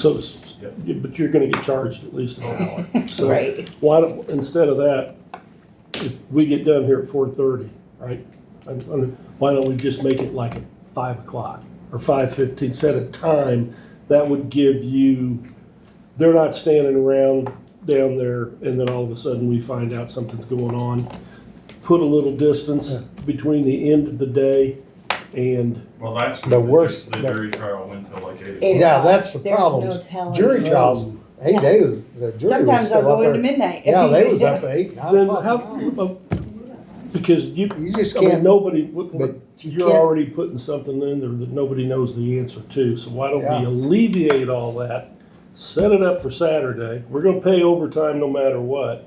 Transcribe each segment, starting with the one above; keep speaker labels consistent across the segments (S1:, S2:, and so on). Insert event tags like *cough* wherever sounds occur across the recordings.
S1: So, s-
S2: Yep.
S1: yeah, but you're gonna get charged at least an hour. So
S3: Right,
S1: why don't, instead of that, if we get done here at four thirty, right? I'm- I'm- Why don't we just make it like at five o'clock or five fifteen, set a time? That would give you, they're not standing around down there and then all of a sudden we find out something's going on. Put a little distance between the end of the day and,
S2: Well, that's.
S4: The worst-
S2: The jury trial went till like
S3: Eight
S2: eight.
S4: Yeah, that's the
S3: there's no
S4: problem.
S3: telling.
S4: Jury trials, hey,
S3: Yeah.
S4: they was, the jury was
S3: Sometimes I'll
S4: still
S3: go into
S4: up there.
S3: midnight.
S4: Yeah, they was up at eight, nine
S1: then
S4: o'clock.
S1: how, uh, because you,
S4: You just
S1: I mean,
S4: can't,
S1: nobody, w-
S4: but
S1: w-
S4: you
S1: you're
S4: can't-
S1: already putting something in there that nobody knows the answer to, so why don't we
S4: Yeah.
S1: alleviate all that? Set it up for Saturday, we're gonna pay overtime no matter what.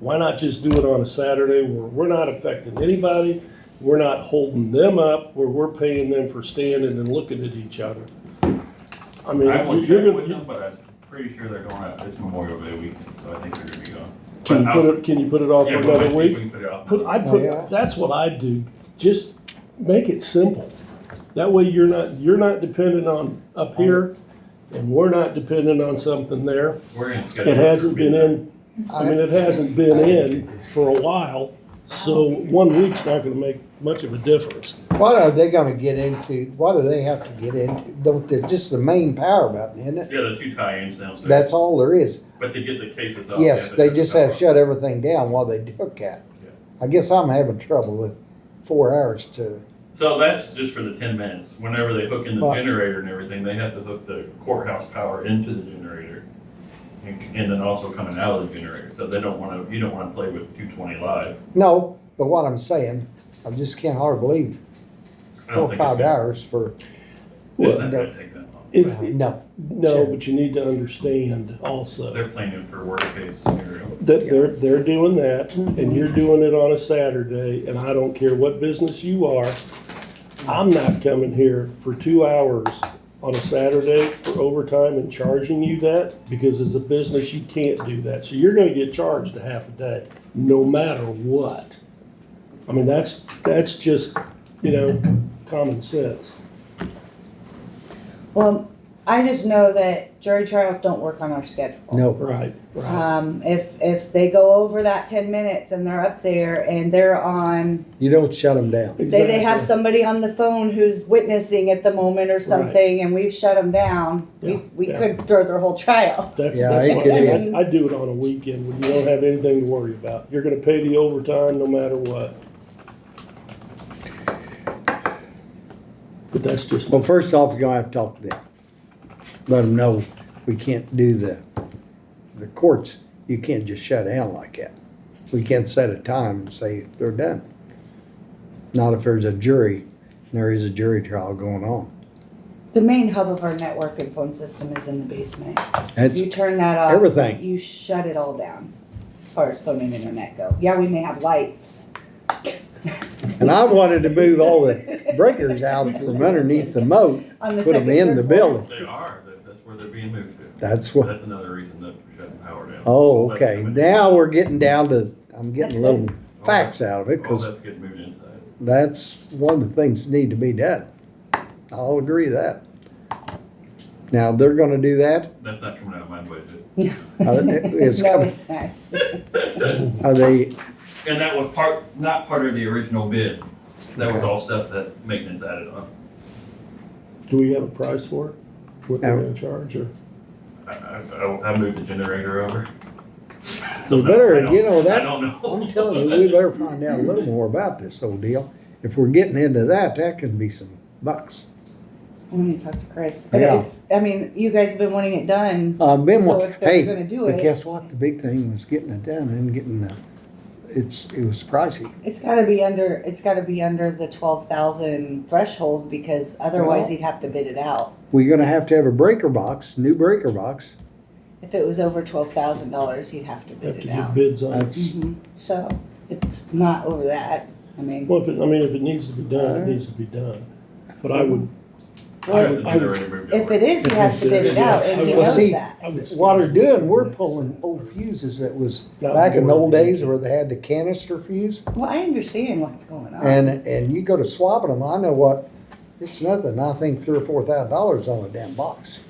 S1: Why not just do it on a Saturday where we're not affecting anybody, we're not holding them up, where we're paying them for standing and looking at each other? I mean,
S2: I will
S1: you're
S2: check with
S1: gonna,
S2: them, but I'm pretty sure they're going out, it's Memorial Day weekend, so I think they're gonna be gone.
S1: can you
S2: But
S1: put
S2: I'll-
S1: it, can you put it off
S2: Yeah,
S1: for
S2: we'll
S1: another
S2: see if
S1: week?
S2: we can put it off.
S1: Put, I'd put,
S4: Yeah.
S1: that's what I'd do, just make it simple. That way you're not, you're not dependent on up here, and we're not dependent on something there.
S2: We're gonna schedule.
S1: It hasn't
S2: for
S1: been in, I mean,
S4: I,
S1: it hasn't been in for a while, so one week's not gonna make much of a difference.
S4: what are they gonna get into, what do they have to get into? Don't, they just the main power button, isn't it?
S2: Yeah, the two tie-ins downstairs.
S4: That's all there is.
S2: But to get the cases up.
S4: Yes, they just have shut everything down while they look at.
S2: Yeah.
S4: it. I guess I'm having trouble with four hours to,
S2: So that's just for the ten minutes. Whenever they hook in the
S4: But-
S2: generator and everything, they have to hook the courthouse power into the generator. And and then also coming out of the generator, so they don't wanna, you don't wanna play with two twenty live.
S4: no, but what I'm saying, I just can't hard believe
S2: I
S4: four,
S2: don't
S4: or
S2: think it's
S4: five
S2: gonna-
S4: hours
S1: *laughs*
S4: for,
S2: It's
S1: Well,
S2: not gonna take that long.
S1: If,
S4: no.
S1: no, but you need to understand also.
S2: They're playing it for worst case scenario.
S1: That they're, they're doing that, and you're doing it on a Saturday, and I don't care what business you are. I'm not coming here for two hours on a Saturday for overtime and charging you that, because as a business, you can't do that. So you're gonna get charged a half a day, no matter what. I mean, that's, that's just, you know, common sense.
S3: Well, I just know that jury trials don't work on our schedule.
S4: No,
S1: Right, right.
S3: Um, if, if they go over that ten minutes and they're up there and they're on,
S4: you don't shut them down.
S3: say they have
S1: Exactly.
S3: somebody on the phone who's witnessing at the moment or something and we've shut them down, we,
S1: Yeah,
S3: we
S1: yeah.
S3: could throw their whole trial.
S1: That's,
S4: Yeah,
S1: that's
S4: it
S1: what
S4: could
S1: I
S3: be.
S1: I do it on a weekend when you don't have anything to worry about. You're gonna pay the overtime no matter what. But that's just,
S4: Well, first off, you're gonna have to talk to them. Let them know we can't do the, the courts, you can't just shut down like that. We can't set a time and say they're done. Not if there's a jury, and there is a jury trial going on.
S3: The main hub of our network and phone system is in the basement.
S4: That's,
S3: You turn that off.
S4: everything.
S3: You shut it all down as far as phone and internet go. Yeah, we may have lights.
S4: and I wanted to move all the breakers out from underneath the moat,
S3: On the
S4: put them
S3: second,
S4: in
S3: third
S4: the
S3: floor. *laughs*
S4: building.
S2: They are, that- that's where they're being moved to.
S4: That's what,
S2: That's another reason that we're shutting power down.
S4: oh, okay, now we're getting down to, I'm getting
S3: That's
S4: little facts out of it,
S2: All
S4: cause
S2: that's getting moved inside.
S4: That's one of the things that need to be done. I'll agree with that. Now, they're gonna do that,
S2: That's not coming out of my budget.
S4: Uh, it- it's
S3: no,
S4: coming,
S3: it's not.
S4: are they,
S2: And that was part, not part of the original bid. That was all stuff that maintenance added on.
S1: do we have a price for it? What they're
S4: No.
S1: gonna charge or?
S2: I, I, I moved the generator over.
S4: So better,
S2: I don't-
S4: you know, that-
S2: I don't know.
S4: I'm telling you, we better find out a little more about this whole deal. If we're getting into that, that could be some bucks.
S3: I'm gonna talk to Chris. But
S4: Yeah.
S3: it's, I mean, you guys have been wanting it done.
S4: Uh, Ben,
S3: So
S4: wa-
S3: if they're
S4: hey,
S3: gonna do
S4: but
S3: it-
S4: guess what? The big thing was getting it done and getting the, it's, it was pricey.
S3: It's gotta be under, it's gotta be under the twelve thousand threshold because otherwise
S4: Well-
S3: he'd have to bid it out.
S4: We're gonna have to have a breaker box, new breaker box.
S3: If it was over twelve thousand dollars, he'd have to bid
S1: Have
S3: it
S1: to
S3: out.
S1: get bids on it.
S4: That's,
S3: Mhm. So it's not over that. I mean,
S1: Well, if it, I mean, if it needs to be done, it needs to be done. But I would,
S2: *laughs* I had the
S1: I would-
S2: generator moved
S3: if
S2: over.
S3: it is, he has to bid it out and he
S1: Well,
S3: knows
S4: see,
S3: that.
S1: I would.
S4: What they're doing, we're pulling old fuses that was
S1: Not
S4: back in the old
S1: more.
S4: days where they had the canister fuse.
S3: Well, I understand what's going on.
S4: And, and you go to swapping them, I know what, it's nothing, I think three or four thousand dollars on a damn box.